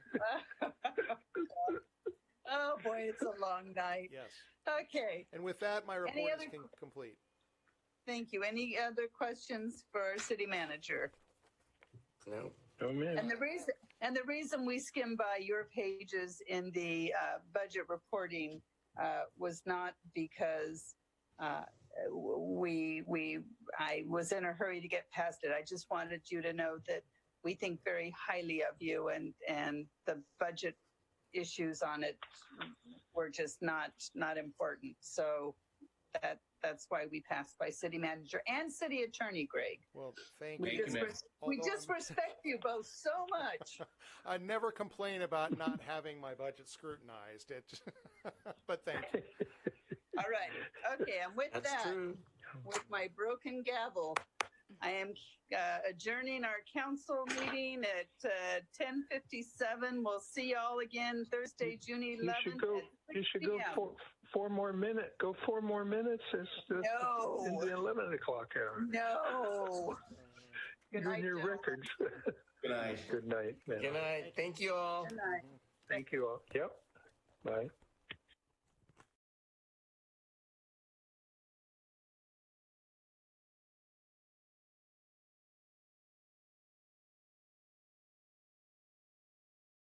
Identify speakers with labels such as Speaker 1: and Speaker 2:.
Speaker 1: Oh, boy, it's a long night.
Speaker 2: Yes.
Speaker 1: Okay,
Speaker 2: And with that, my report is
Speaker 1: other-
Speaker 2: con- complete.
Speaker 1: thank you. Any other questions for our city manager?
Speaker 3: No,
Speaker 4: Oh, man.
Speaker 1: And the reason, and the reason we skimmed by your pages in the uh, budget reporting uh, was not because uh, w- we, we, I was in a hurry to get past it. I just wanted you to know that we think very highly of you and, and the budget issues on it were just not, not important. So that, that's why we passed by city manager and city attorney, Greg.
Speaker 2: Well, thank
Speaker 1: We
Speaker 4: Thank you,
Speaker 2: you.
Speaker 1: just,
Speaker 4: ma'am.
Speaker 1: res- we
Speaker 2: Although
Speaker 1: just
Speaker 2: I'm-
Speaker 1: respect you both so much.
Speaker 2: I never complain about not having my budget scrutinized. It, but thank you.
Speaker 1: All right. Okay. And with
Speaker 3: that's
Speaker 1: that,
Speaker 3: true.
Speaker 1: with my broken gavel, I am uh, adjourning our council meeting at uh, 10:57. We'll see y'all again Thursday, June
Speaker 4: You should
Speaker 1: 11th.
Speaker 4: go,
Speaker 1: at
Speaker 4: you
Speaker 1: 6
Speaker 4: should go
Speaker 1: p.m.
Speaker 4: four, four more minute, go four more minutes. It's the,
Speaker 1: No.
Speaker 4: in the 11 o'clock hour.
Speaker 1: No. Good
Speaker 4: You're
Speaker 1: night,
Speaker 4: near
Speaker 1: gentlemen.
Speaker 4: records.
Speaker 5: Good night.
Speaker 4: Good night,
Speaker 3: Good
Speaker 4: man.
Speaker 3: night. Thank you all.
Speaker 1: Good night.
Speaker 4: Thank you all. Yep. Bye.